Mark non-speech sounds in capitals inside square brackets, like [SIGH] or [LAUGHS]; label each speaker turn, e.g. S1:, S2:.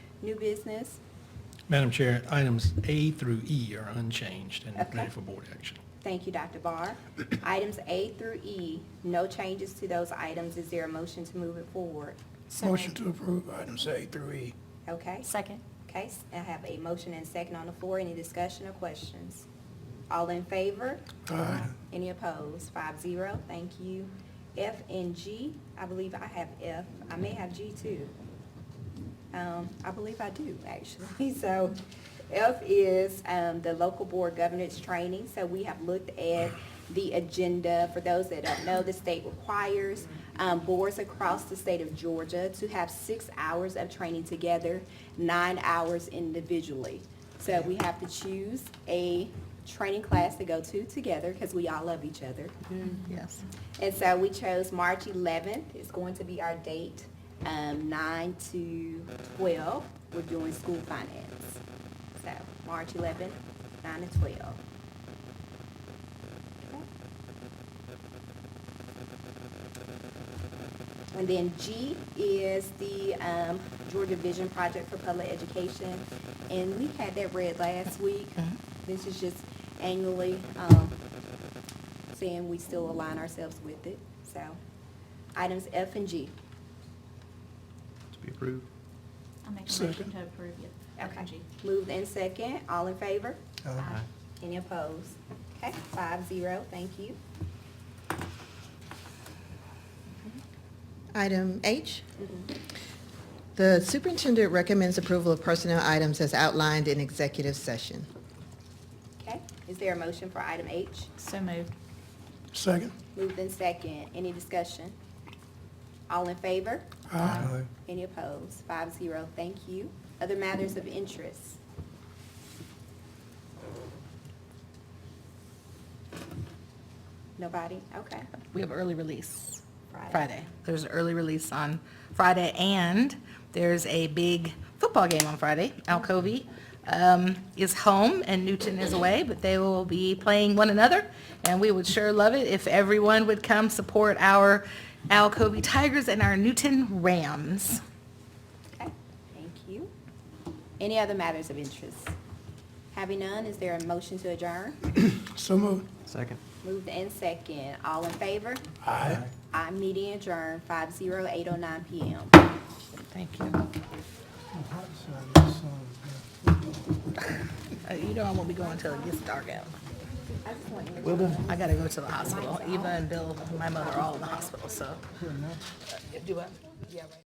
S1: New business?
S2: Madam Chair, items A through E are unchanged and
S1: Okay.
S2: ready for board action.
S1: Thank you, Dr. Barr. Items A through E, no changes to those items. Is there a motion to move it forward?
S3: Motion to approve items A through E.
S1: Okay?
S4: Second.
S1: Okay, s- I have a motion and second on the floor. Any discussion or questions? All in favor?
S3: Aye.
S1: Any opposed? Five zero, thank you. F and G, I believe I have F. I may have G too. Um, I believe I do, actually. [LAUGHS] So F is, um, the local board governance training. So we have looked at the agenda. For those that don't know, the state requires, um, boards across the state of Georgia to have six hours of training together, nine hours individually. So we have to choose a training class to go to together because we all love each other.
S4: Yes.
S1: And so we chose March 11th. It's going to be our date, um, 9 to 12. We're doing school finance. So March 11th, 9 to 12. And then G is the um, Georgia Vision Project for Public Education. And we had that read last week. This is just annually um, saying we still align ourselves with it. So items F and G.
S5: To be approved.
S4: I'll make a motion
S3: Second.
S4: to approve it.
S1: Okay.
S4: G.
S1: Moved in second. All in favor?
S3: Aye.
S1: Any opposed? Okay, five zero. Thank you.
S6: Item H, the superintendent recommends approval of personnel items as outlined in executive session.
S1: Okay, is there a motion for item H?
S4: So moved.
S3: Second.
S1: Moved in second. Any discussion? All in favor?
S3: Aye.
S1: Any opposed? Five zero. Thank you. Other matters of interest? Nobody? Okay.
S7: we have early release
S1: Friday.
S7: Friday. There's an early release on Friday, and there's a big football game on Friday. Alcovey um, is home and Newton is away, but they will be playing one another, and we would sure love it if everyone would come support our Alcovey Tigers and our Newton Rams.
S1: Okay, thank you. Any other matters of interest? Having none, is there a motion to adjourn?
S3: So moved.
S5: Second.
S1: Moved and second. All in favor?
S3: Aye.
S1: I meeting adjourned, five zero eight oh nine PM.
S7: Thank you. Uh, You know I won't be going until it gets dark out.
S5: Well done.
S7: I gotta go to the hospital. Eva and Bill, my mother, are all in the hospital, so. Uh, Do what? Yeah, right.